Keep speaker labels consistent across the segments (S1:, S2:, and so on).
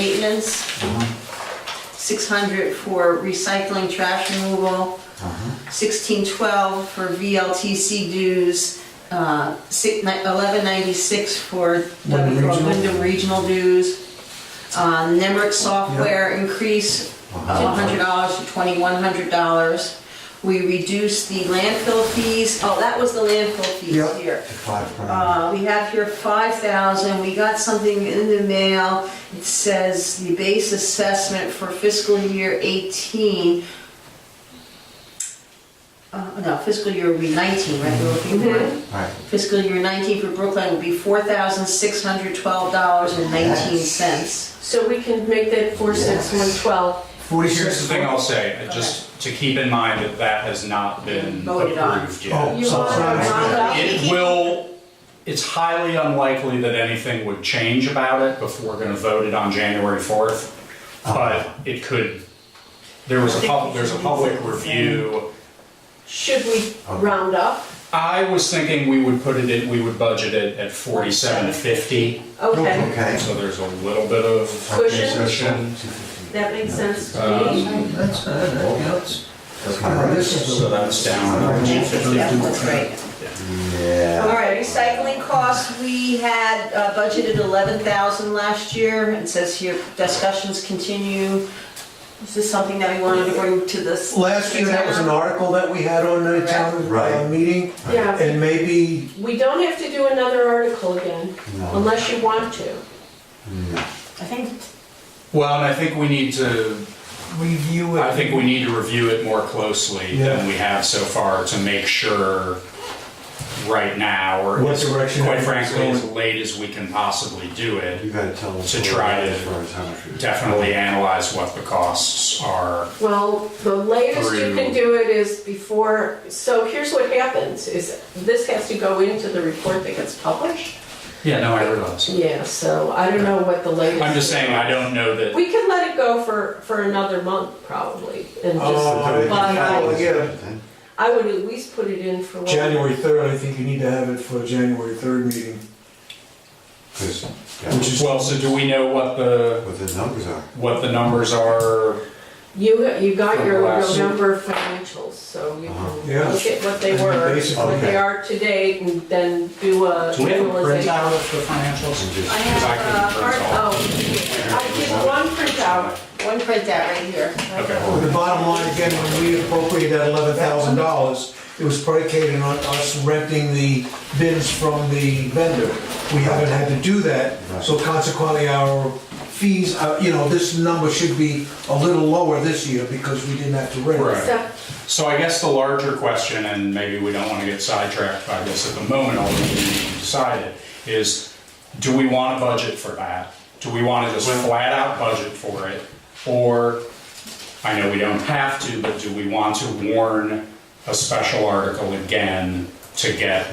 S1: maintenance, six hundred for recycling, trash removal, sixteen twelve for VLTC dues, uh, eleven ninety-six for the
S2: Wyndham Regional.
S1: Wyndham Regional dues, uh, Nemrick software increase,
S2: Uh-huh.
S1: hundred dollars to twenty-one hundred dollars. We reduced the landfill fees, oh, that was the landfill
S2: Yeah.
S1: fees here.
S3: Five grand.
S1: Uh, we have here five thousand, we got something in the mail, it says the base assessment for fiscal year eighteen. Uh, no, fiscal year will be nineteen, right, we're looking for,
S3: Right.
S1: fiscal year nineteen for Brooklyn will be four thousand six hundred twelve dollars and nineteen cents.
S4: So we can make that four, six, one, twelve.
S2: Forty-six.
S5: Here's the thing I'll say, uh, just to keep in mind that that has not been
S1: Voted on.
S5: approved
S2: Oh.
S5: yet.
S4: You
S2: So-
S4: want to round up?
S5: It will, it's highly unlikely that anything would change about it before we're gonna vote it on January 4th. But it could, there was a pub, there's a public review.
S4: Should we round up?
S5: I was thinking we would put it in, we would budget it at 4750,
S4: Okay,
S3: Okay.
S5: so there's a little bit of,
S4: Cushion?
S3: Okay, so it's
S5: Cushion.
S3: 250.
S4: that makes sense to me.
S5: um,
S2: That's, uh, that, you know, it's-
S3: That's kind of-
S5: so that's down around
S1: Yeah,
S5: 250.
S1: that's right. All
S3: Yeah.
S1: right, recycling costs, we had uh, budgeted 11,000 last year. It says here, discussions continue. Is this something that we wanted to bring to this?
S2: Last year, that was an article that we had on the town uh,
S3: Right.
S2: meeting,
S4: Yeah,
S2: and maybe,
S4: we don't have to do another article again,
S3: No.
S4: unless you want to.
S1: I think,
S5: Well, and I think we need to
S2: review
S5: I
S2: it.
S5: think we need to review it more closely
S2: Yeah.
S5: than we have so far to make sure right now, or
S2: What
S5: as-
S2: direction
S5: quite
S2: it's
S5: frankly,
S2: going.
S5: as late as we can possibly do it,
S3: You gotta tell us.
S5: To try to
S3: as far as how much we-
S5: definitely analyze what the costs are.
S4: Well, the latest you
S5: Through-
S4: can do it is before, so here's what happens, is this has to go into the report that gets published?
S5: Yeah, no, I realize.
S4: Yeah, so I don't know what the latest.
S5: I'm just saying, I don't know that,
S4: We can let it go for, for another month probably, and
S5: Uh,
S2: Oh,
S4: just,
S2: I-
S4: Well,
S2: yeah.
S4: I would at least put it in for. what-
S2: January third, I think you need to have it for January third meeting.
S3: 'Cause,
S2: Which
S3: yeah,
S2: is-
S5: well, so do we know what the,
S3: What the numbers are.
S5: what the numbers are?
S4: You, you got your
S5: Last year.
S4: November financials, so you
S3: Uh-huh.
S2: Yeah.
S4: can look at what they were,
S2: Basically.
S4: what they are to date, and then do a
S5: Do we have a
S4: analysis.
S5: printout of the financials?
S3: And just-
S1: I
S5: Because I uh, couldn't
S1: have a
S5: print all.
S4: Oh, I did one printout.
S1: one printout right here.
S5: Okay,
S2: The bottom line, again, when we appropriated that eleven thousand dollars, it was predicated on us renting the bins from the vendor. We haven't had to do that, so consequently, our fees, uh, you know, this number should be a little lower this year because we didn't have to rent.
S5: Right.
S4: Except,
S5: so I guess the larger question, and maybe we don't want to get sidetracked by this at the moment, although we need to decide it, is do we want to budget for that? Do we want to just flat out budget for it? Or, I know we don't have to, but do we want to warn a special article again to get,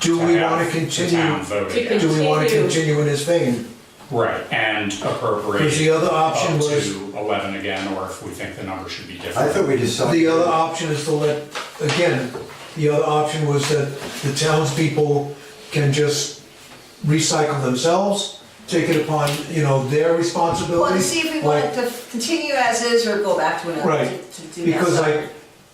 S2: Do
S5: to
S2: we want
S5: have the
S2: to
S5: town
S2: continue,
S5: vote
S4: To
S5: again?
S2: do we want to
S4: Continue.
S2: continue in this vein?
S5: Right, and appropriate.
S2: Because the other option
S5: up
S2: was-
S5: to 11 again, or if we think the number should be
S3: I
S5: different.
S3: thought we decided.
S2: The other option is to let, again, the other option was that the townspeople can just recycle themselves, take it upon, you know, their
S1: Well,
S2: responsibility.
S1: to see if we wanted
S2: like-
S1: to continue as is or go back to another to
S2: Right,
S1: to do that.
S2: because like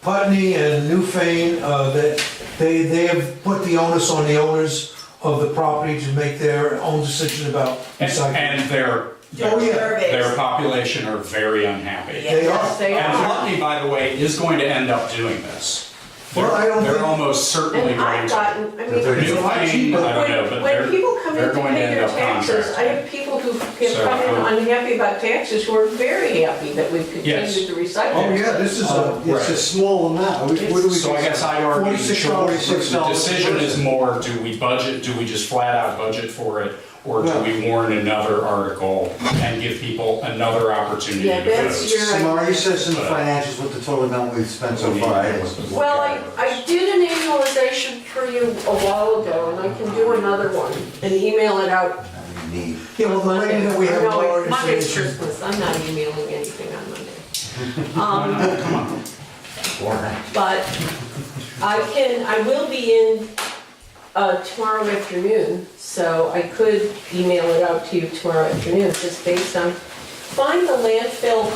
S2: Putney and Newfane, uh, that, they, they have put the onus on the owners of the property to make their own decision about
S5: And-
S2: recycling.
S5: And their,
S2: Oh, yeah.
S5: their, their population are very unhappy.
S2: They
S4: yes,
S2: are,
S4: they
S5: And
S4: are.
S5: Putney, by the way, is going to end up doing this.
S2: Well, I don't
S5: They're
S2: think-
S5: almost certainly
S4: And
S5: going
S4: I've
S5: to.
S4: gotten, I
S3: That they're
S4: mean.
S5: New
S2: a lot
S5: Payne,
S2: cheaper.
S5: I don't know,
S4: When,
S5: but
S4: when
S5: they're,
S4: people come in
S5: they're
S4: to
S5: going to
S4: pay
S5: end
S4: their
S5: up
S4: taxes, I
S5: contracting.
S4: have people who have
S5: So,
S4: come in
S5: um,
S4: unhappy about taxes who are very happy that we've
S5: Yes.
S4: continued to recycle.
S3: Oh, yeah, this is a,
S5: Uh,
S3: it's a
S5: right.
S3: small amount. What do we?
S5: So I guess I argue,
S3: $46,
S5: George, the
S3: $46
S5: decision is more, do we budget, do we just flat out budget for it? Or do
S3: Well-
S5: we warn another article and give people another opportunity
S4: Yeah,
S5: to
S4: that's
S5: vote?
S4: your-
S3: So Maria says in the financials what the total amount we've spent so far is.
S4: Well, I, I did an annualization for you a while ago, and I can do another one and email it out.
S3: Need.
S2: Yeah, well, the lady that we have
S4: No,
S2: more
S4: Monday's
S2: information.
S4: Christmas, I'm not emailing anything on Monday. Um,
S5: Come on.
S4: But I can, I will be in uh, tomorrow afternoon, so I could email it out to you tomorrow afternoon, just based on find the landfill